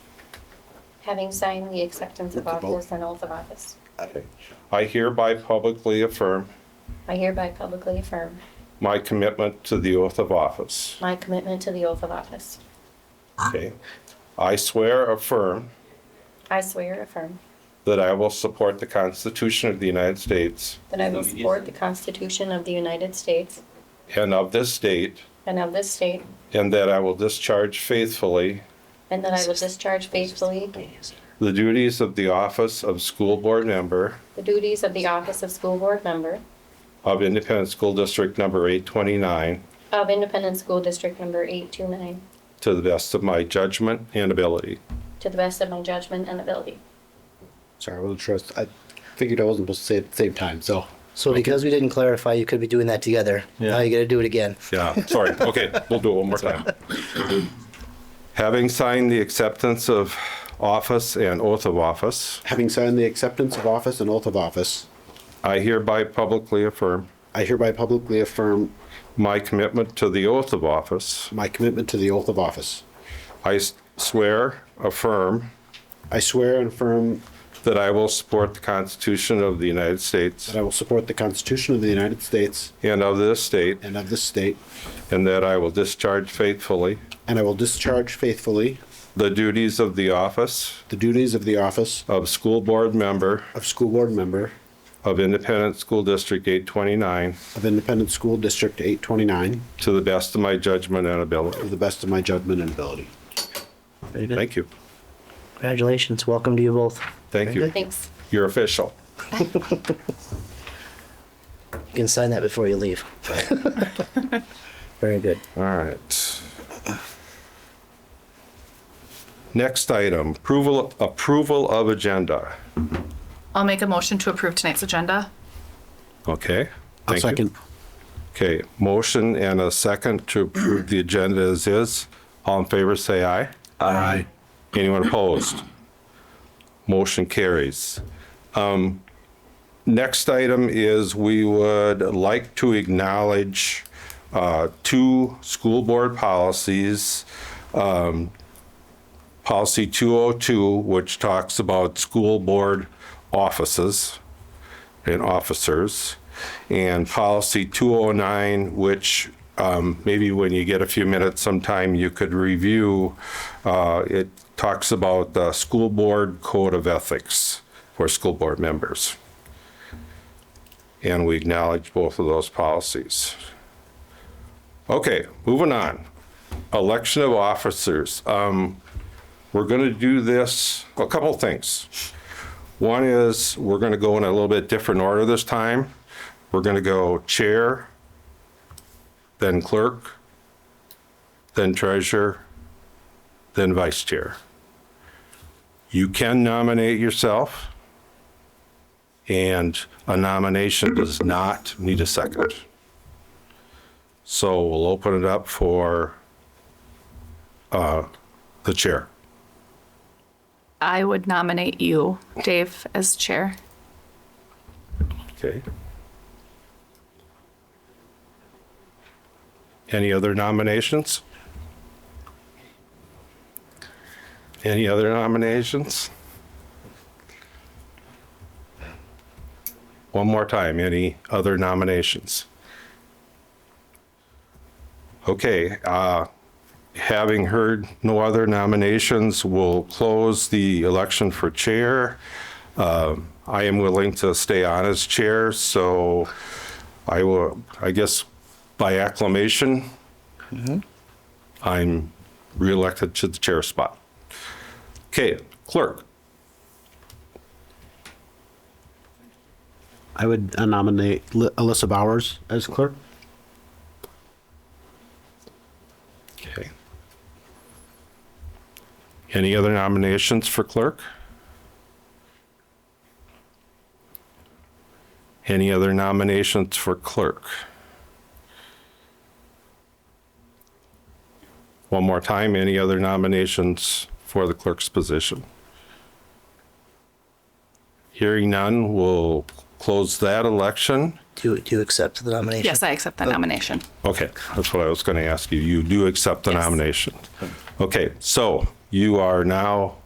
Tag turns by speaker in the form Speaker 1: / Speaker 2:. Speaker 1: having signed the acceptance of
Speaker 2: With the vote.
Speaker 1: office and oath of office.
Speaker 3: Okay. I hereby publicly affirm
Speaker 1: I hereby publicly affirm
Speaker 3: my commitment to the oath of office.
Speaker 1: my commitment to the oath of office.
Speaker 3: Okay. I swear affirm
Speaker 1: I swear affirm
Speaker 3: that I will support the Constitution of the United States
Speaker 1: that I will support the Constitution of the United States
Speaker 3: and of this state,
Speaker 1: and of this state,
Speaker 3: and that I will discharge faithfully
Speaker 1: and that I will discharge faithfully
Speaker 3: the duties of the office of school board member
Speaker 1: the duties of the office of school board member
Speaker 3: of Independent School District Number 829
Speaker 1: of Independent School District Number 829
Speaker 3: to the best of my judgment and ability.
Speaker 1: to the best of my judgment and ability.
Speaker 2: Sorry, I wasn't sure. I figured I wasn't supposed to say it at the same time, so.
Speaker 4: So because we didn't clarify, you could be doing that together. Now you gotta do it again.
Speaker 3: Yeah, sorry. Okay, we'll do it one more time. Having signed the acceptance of office and oath of office,
Speaker 2: Having signed the acceptance of office and oath of office,
Speaker 3: I hereby publicly affirm
Speaker 2: I hereby publicly affirm
Speaker 3: my commitment to the oath of office.
Speaker 2: my commitment to the oath of office.
Speaker 3: I s- swear, affirm,
Speaker 2: I swear and affirm
Speaker 3: that I will support the Constitution of the United States
Speaker 2: that I will support the Constitution of the United States
Speaker 3: and of this state,
Speaker 2: and of this state,
Speaker 3: and that I will discharge faithfully
Speaker 2: and I will discharge faithfully
Speaker 3: the duties of the office
Speaker 2: the duties of the office
Speaker 3: of school board member
Speaker 2: of school board member
Speaker 3: of Independent School District 829
Speaker 2: of Independent School District 829
Speaker 3: to the best of my judgment and ability.
Speaker 2: to the best of my judgment and ability.
Speaker 4: Very good.
Speaker 3: Thank you.
Speaker 4: Congratulations. Welcome to you both.
Speaker 3: Thank you.
Speaker 1: Thanks.
Speaker 3: You're official.
Speaker 4: You can sign that before you leave. Very good.
Speaker 3: All right. Next item, approval, approval of agenda.
Speaker 5: I'll make a motion to approve tonight's agenda.
Speaker 3: Okay?
Speaker 2: I'll
Speaker 3: Thank you.
Speaker 2: second.
Speaker 3: Okay, motion and a second to approve the agenda as is. All in favor, say aye. Aye. Anyone opposed? Motion carries. Um, Next item is we would like to acknowledge uh, two school board policies. Um, Policy 202, which talks about school board offices and officers. And policy 209, which um, maybe when you get a few minutes sometime, you could review. Uh, It talks about the school board code of ethics for school board members. And we acknowledge both of those policies. Okay, moving on. Election of officers. Um, We're going to do this, a couple things. One is, we're going to go in a little bit different order this time. We're going to go chair, then clerk, then treasurer, then vice chair. You can nominate yourself, and a nomination does not need a second. So we'll open it up for uh, the chair.
Speaker 5: I would nominate you, Dave, as chair.
Speaker 3: Okay. Any other nominations? Any other nominations? One more time, any other nominations? Okay, uh, having heard no other nominations, we'll close the election for chair. Um, I am willing to stay on as chair, so I will, I guess by acclamation, I'm reelected to the chair spot. Okay, clerk,
Speaker 2: I would uh, nominate Li- Alyssa Bowers as clerk.
Speaker 3: okay. Any other nominations for clerk? Any other nominations for clerk? One more time, any other nominations for the clerk's position? Hearing none, we'll close that election.
Speaker 4: Do, do you accept the nomination?
Speaker 5: Yes, I accept that nomination.
Speaker 3: Okay, that's what I was going to ask you. You do accept the
Speaker 5: Yes.
Speaker 3: nomination. Okay, so you are now